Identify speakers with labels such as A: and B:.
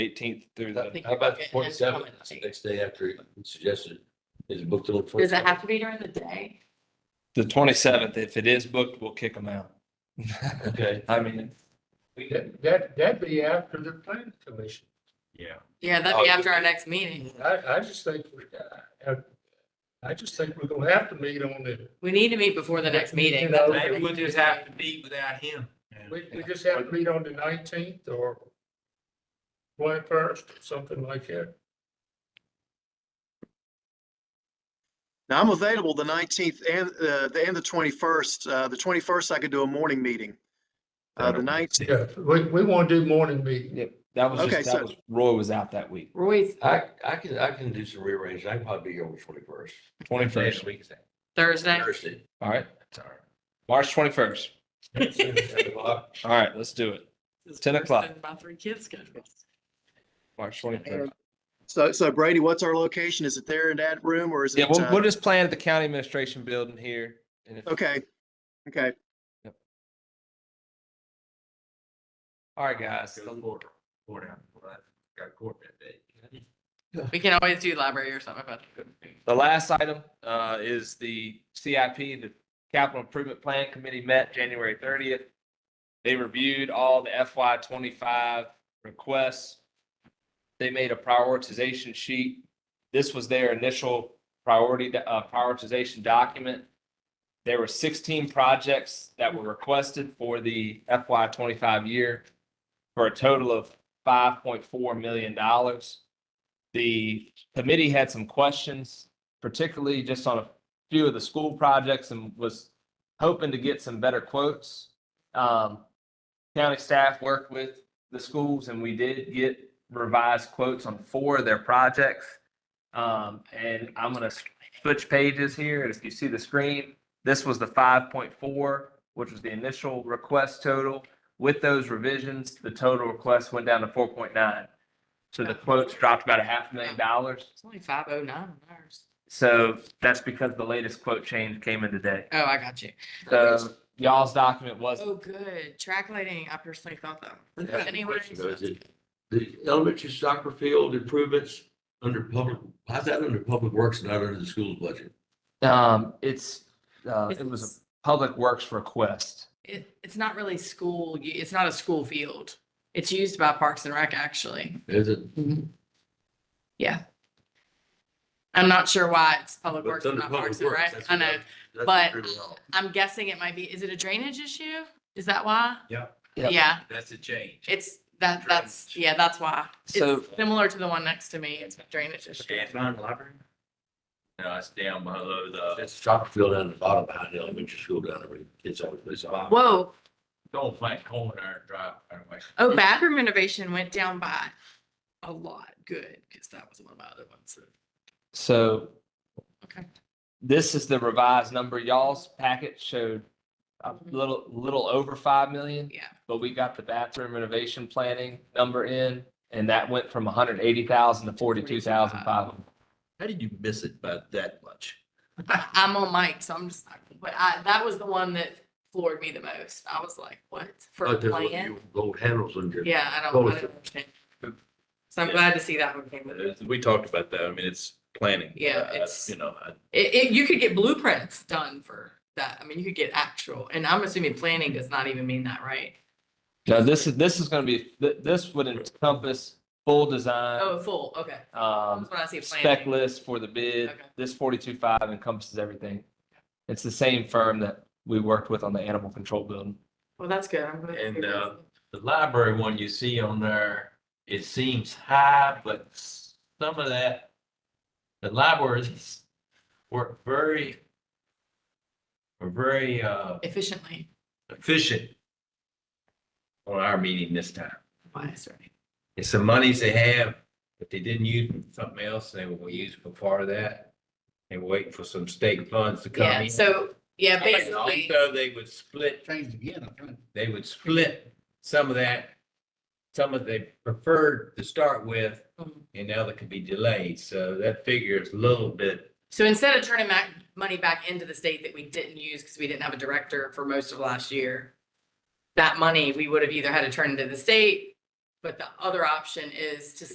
A: eighteenth through
B: How
A: the,
B: about the twenty seventh, next day after you suggested, is it booked till? the
C: Does it
B: 27th?
C: have to be during the day?
A: the twenty-seventh. If it is booked, we'll kick them out.
B: Okay.
A: I mean,
D: That, that- that'd be after the planning commission.
E: Yeah.
C: Yeah,
B: Oh,
C: that'd be after our next meeting.
D: I, I just think, we- I, I just think we're gonna have to meet on the,
C: We need to meet before the next meeting.
D: No.
C: That's-
E: Maybe we'll just have to meet without him.
D: we, we just have to meet on the nineteenth or twenty first, something like that.
F: Now I'm available the 19th and, uh, the, and the 21st. Uh, the 21st I could do a morning meeting. Uh, the 19th,
D: Yeah, we, we wanna do morning meeting.
A: yeah, that was
F: Okay,
A: just, that
F: so-
A: was, Roy was out that week,
C: Roy's
B: I, I can, I can do some rearranging. I can probably be here on the twenty first.
A: twenty-first.
C: Thursday.
B: Thursday.
A: All right, March twenty-first. All right, let's do it. 10 o'clock.
C: My three kids' schedules.
A: March twenty-first.
F: so, so Brady, what's our location? Is it there in that room or is it?
A: Yeah, we'll,
F: uh,
A: we'll just plan at the county administration building here. And if,
F: Okay. Okay.
A: all right, guys.
E: Go to court. Court out. Well, I Got court that day.
C: We can always do library or something about.
A: The last item uh, is the CIP, the Capital Improvement Plan Committee met January thirtieth. They reviewed all the FY twenty-five requests. They made a prioritization sheet. This was their initial priority, uh, prioritization document. There were sixteen projects that were requested for the FY twenty-five year for a total of five point four million dollars. The committee had some questions, particularly just on a few of the school projects and was hoping to get some better quotes. Um, county staff worked with the schools and we did get revised quotes on four of their projects. Um, and I'm gonna switch pages here. And if you see the screen, this was the five point four, which was the initial request total. With those revisions, the total request went down to four point nine. So the quotes dropped about a half million dollars.
C: It's only five oh nine on ours.
A: So that's because the latest quote change came in today.
C: Oh, I got you.
A: So y'all's document was,
C: Oh, good. Track lighting, I personally thought
A: Uh,
B: I
C: that.
B: have a
C: Anyway,
B: question, though. Is it The elementary soccer field improvements under public, how's that under public works, not under the school's budget?
A: um, it's, uh, it was
C: It's,
A: a public works request.
C: it- it's not really school, u- it's not a school field. It's used by Parks and Rec, actually.
B: Is it?
C: I'm not sure why it's Public
B: But
C: Works,
B: it's under
C: not
B: public
C: Parks and
B: works.
C: Rec.
B: That's
C: I
B: what
C: know.
B: I- That's
C: But
B: pretty well.
C: I'm guessing it might be, is it a drainage issue? Is that why?
E: Yeah.
A: Yeah.
C: Yeah,
E: That's a change.
C: it's that, that's,
E: Drainage.
C: yeah, that's why.
A: So-
C: It's similar to the one next to me. It's a drainage issue.
E: Stand behind the library? No, it's down below the,
B: That's soccer field down the bottom behind the elementary school down there. where the Kids always play soccer.
C: Whoa,
E: don't flank corner drive. anyway.
C: oh, bathroom renovation went down by a lot. Good, because that was one of my other ones. that-
A: So
C: Okay.
A: this is the revised number. Y'all's packet showed a
C: Mhm.
A: little, little over five million.
C: Yeah.
A: But we got the bathroom renovation planning number in and that went from hundred eighty thousand to forty-two thousand five hundred.
B: How did you miss it by that much?
C: I- I'm on mic, so I'm just, like, but I, that was the one that floored me the most. I was like, what? For
B: Oh,
C: a
B: there's one of
C: plan?
B: your Gold handles on your.
C: Yeah, I don't, I
B: Totally.
C: don't understand. So I'm glad to see that one came with it.
G: We talked about that. I mean, it's planning.
C: Yeah,
G: Uh,
C: it's-
G: You know, I-
C: It, it, you could get blueprints done for that. I mean, you could get actual, and I'm assuming planning does not even mean that, right?
A: Now, this is, this is gonna be, th- this would encompass full design,
C: Oh, full, okay.
A: um,
C: That's when I see
A: spec
C: planning.
A: list for the bid.
C: Okay.
A: This forty-two five encompasses everything. It's the same firm that we worked with on the animal control building.
C: Well, that's good. I'm glad to
E: And,
C: see this.
E: uh, The library one you see on there, it seems high, but some of that, the libraries work very, were very uh,
C: Efficiently.
E: efficient on our meeting this time.
C: Wise, right?
E: It's some monies they have, but they didn't use it for something else, and they were gonna use it for part of that. And waiting for some state funds to come
C: Yeah,
E: in.
C: so, yeah,
E: And
C: basically,
E: Also, they would split,
D: Change again, I'm trying.
E: they would split some of that, some of they preferred to start with,
C: Mhm.
E: and the other could be delayed, so that figure is a little bit,
C: so instead of turning back money back into the state that we didn't use because we didn't have a director for most of last year, that money, we would have either had to turn into the state But the other option is to